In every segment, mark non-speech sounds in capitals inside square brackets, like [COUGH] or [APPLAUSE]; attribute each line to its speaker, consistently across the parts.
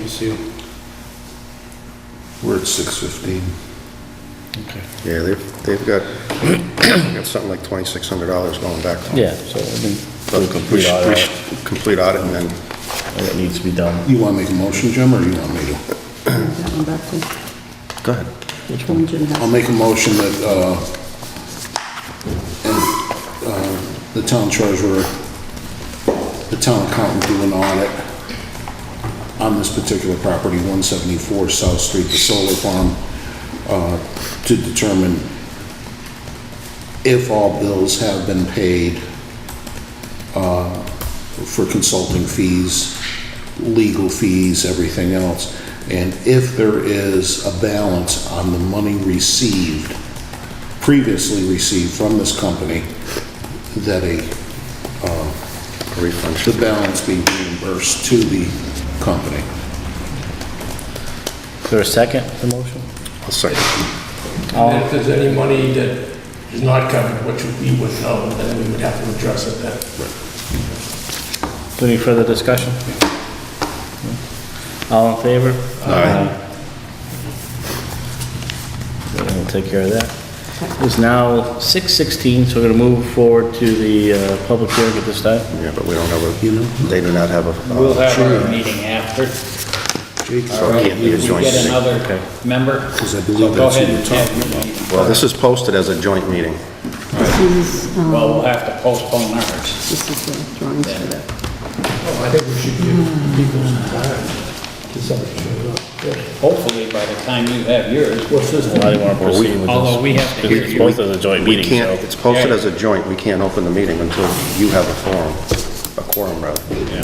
Speaker 1: Lucille?
Speaker 2: We're at 6:15.
Speaker 1: Okay.
Speaker 2: Yeah, they've, they've got, [CLEARS THROAT] they've got something like $2,600 going back. to them.
Speaker 3: Yeah, so I mean,
Speaker 2: But we
Speaker 3: do a complete
Speaker 2: should- we
Speaker 3: audit,
Speaker 2: should Complete audit and then
Speaker 3: and it needs to be done.
Speaker 1: You want to make a motion, Jim, or you want me to?
Speaker 4: That one back to
Speaker 3: Go ahead. Which one?
Speaker 4: one Jim
Speaker 1: I'll
Speaker 4: had.
Speaker 1: make a motion that, uh, and, uh, the town treasurer, the town accountant do an audit on this particular property, 174 South Street, the solar farm, uh, to determine if all bills have been paid, uh, for consulting fees, legal fees, everything else. And if there is a balance on the money received, previously received from this company, that a, uh,
Speaker 2: a refund
Speaker 1: the
Speaker 2: should be.
Speaker 1: balance be reimbursed to the company.
Speaker 3: Is there a second to the motion?
Speaker 2: I'll second.
Speaker 5: And if there's any money that is not covered, which we would know, then we would have to address it then.
Speaker 3: Any further discussion? All in favor? Aye. We'll take care of that. It's now 6:16, so we're going to move forward to the uh, public hearing at this time.
Speaker 2: Yeah, but we don't have a, they do not have a. uh,
Speaker 6: We'll have our meeting after.
Speaker 2: So it can't be a
Speaker 6: If we
Speaker 2: joint
Speaker 6: get
Speaker 2: meeting.
Speaker 6: another
Speaker 3: Okay.
Speaker 6: member,
Speaker 1: Because I
Speaker 6: so
Speaker 1: believe
Speaker 6: go
Speaker 1: that's what
Speaker 6: ahead
Speaker 1: you're
Speaker 6: and
Speaker 1: talking
Speaker 6: have your meeting.
Speaker 2: Well, this is posted as a joint meeting.
Speaker 4: This is, um,
Speaker 6: Well, we'll have to postpone ours.
Speaker 4: this is the drawings for that.
Speaker 5: I think we should give people some time to somebody show up.
Speaker 6: Hopefully, by the time you have yours,
Speaker 5: What's this?
Speaker 3: Why do you want to proceed with this?
Speaker 6: although we have to hear
Speaker 3: It's
Speaker 6: you.
Speaker 3: supposed as a joint
Speaker 2: We
Speaker 3: meeting, so...
Speaker 2: can't, it's posted as a joint, we can't open the meeting until you have a forum, a quorum, rather.
Speaker 6: Yeah.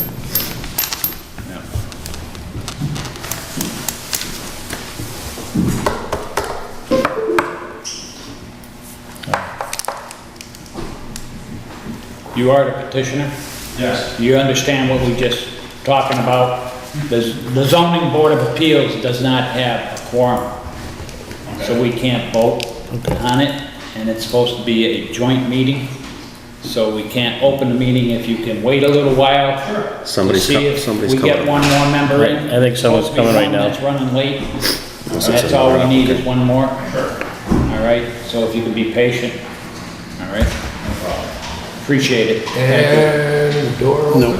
Speaker 6: You are the petitioner? Yes. You understand what we just talking about? The the zoning board of appeals does not have a quorum, so we can't vote on it, and it's supposed to be a joint meeting, so we can't open the meeting if you can wait a little while. to
Speaker 2: Somebody's
Speaker 6: see
Speaker 2: co-
Speaker 6: if
Speaker 2: somebody's
Speaker 6: We get
Speaker 2: coming.
Speaker 6: one more member in.
Speaker 3: I think someone's coming right now.
Speaker 6: It's running late,
Speaker 2: Unless it's
Speaker 6: that's all
Speaker 2: another
Speaker 6: we need
Speaker 2: applicant.
Speaker 6: is one more. All right, so if you can be patient, all right? No problem. Appreciate it.
Speaker 5: And the door open.
Speaker 1: No,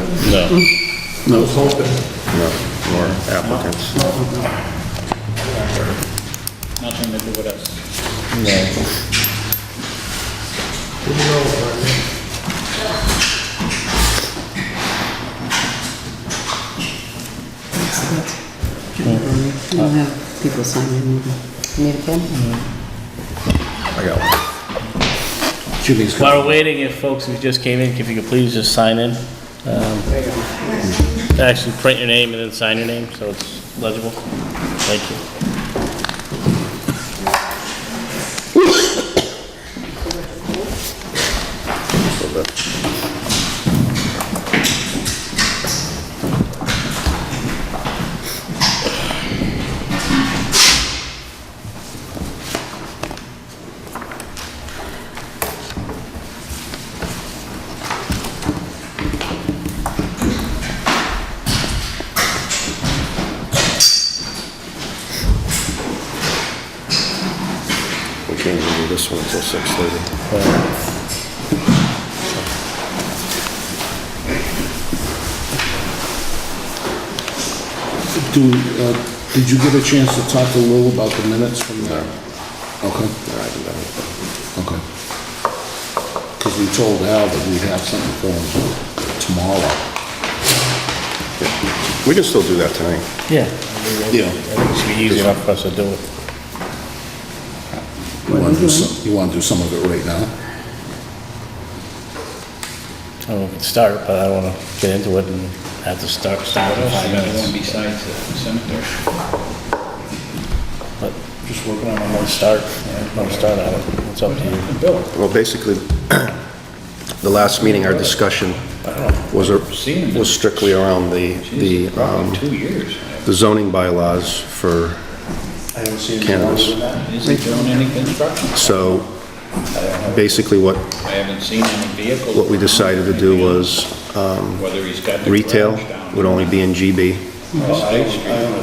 Speaker 5: It's open.
Speaker 2: No, more applicants.
Speaker 6: Nothing to do with us.
Speaker 5: Didn't know about it.
Speaker 4: That's it. You don't have people signing anything. Need a pen?
Speaker 2: I got one.
Speaker 1: Jimmy's got
Speaker 3: While we're waiting, if folks who just came in, if you could please just sign in. um, Actually, print your name and then sign your name, so it's legible. Thank you.
Speaker 2: We can't even do this one until 6:30.
Speaker 1: Do, uh, did you get a chance to talk to Lou about the minutes from there? Okay. Okay. Because we told Al that we'd have something for him tomorrow.
Speaker 2: We can still do that tonight.
Speaker 3: Yeah.
Speaker 1: Yeah.
Speaker 3: It should be easy enough for us to do it.
Speaker 1: You want to do some, you want to do some of it right now?
Speaker 3: I don't know if we can start, but I don't want to get into it and have to start, start
Speaker 6: What
Speaker 3: in
Speaker 6: else
Speaker 3: five
Speaker 6: you got
Speaker 3: minutes.
Speaker 6: going besides the cemetery?
Speaker 3: But just working on one start, one start on it. It's up to you. Bill.
Speaker 2: Well, basically, [CLEARS THROAT] the last meeting, our discussion was, a-
Speaker 6: Seen it.
Speaker 2: was strictly around the, the
Speaker 6: Jeez,
Speaker 2: um,
Speaker 6: Probably two years.
Speaker 2: the zoning bylaws for cannabis.
Speaker 6: Isn't doing any construction.
Speaker 2: So basically, what,
Speaker 6: I haven't seen any vehicles.
Speaker 2: what we decided to do was um,
Speaker 6: Whether he's got the
Speaker 2: retail
Speaker 6: garage down
Speaker 2: would
Speaker 6: or
Speaker 2: only
Speaker 6: not.
Speaker 2: be in GB,
Speaker 6: State Street.